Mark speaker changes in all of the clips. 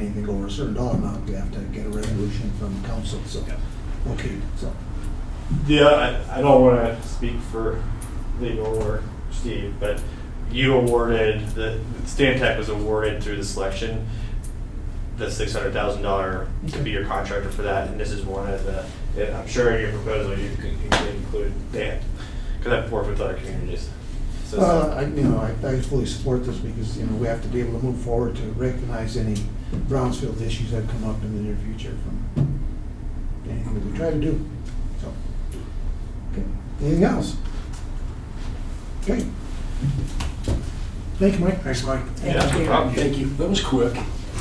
Speaker 1: anything over a certain dollar amount, we have to get a resolution from council, so, okay, so.
Speaker 2: Yeah, I, I don't want to speak for legal or Steve, but you awarded, the, Stantec was awarded through the selection, the six hundred thousand dollar to be your contractor for that, and this is one of the, and I'm sure in your proposal you could you could include that, because I've worked with other communities. So it's
Speaker 1: Well,
Speaker 3: Uh,
Speaker 2: not-
Speaker 1: Uh, I, you know, I, I fully support this because, you know, we have to be able to move forward to recognize any Brownsfield issues that come up in the near future from anything that we try to do, so. okay. Anything else? Okay. Thank you, Mike.
Speaker 3: Thanks, Mike.
Speaker 2: Yeah, no problem.
Speaker 3: Thank you. That was quick.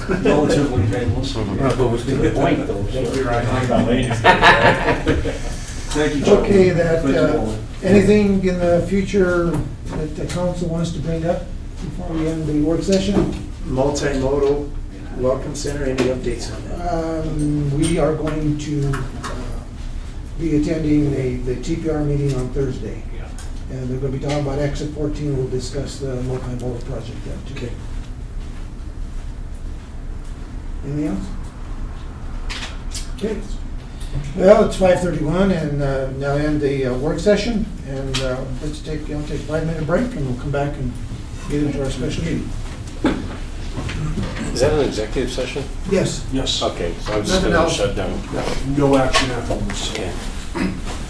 Speaker 3: Relatively painless. You're right. Thank you, Joe.
Speaker 1: Okay, that,
Speaker 3: Thank you,
Speaker 1: uh,
Speaker 3: Nolan.
Speaker 1: anything in the future that the council wants to bring up before we end the work session?
Speaker 4: Multimodal Welcome Center, any updates on that?
Speaker 1: Um, We are going to uh, be attending a- the TPR meeting on Thursday. And they're going to be talking about exit 14, we'll discuss the multimodal project then. too.
Speaker 4: Okay.
Speaker 1: Anything else? Okay. Well, it's 5:31 and uh, now end the uh, work session. And uh, let's take, you know, take a five-minute break and we'll come back and get into our special meeting.
Speaker 5: Is that an executive session?
Speaker 1: Yes.
Speaker 3: Yes,
Speaker 5: Okay, so I
Speaker 1: Nothing
Speaker 5: was just gonna
Speaker 1: else.
Speaker 5: shut down.
Speaker 3: no action after this.
Speaker 5: Okay.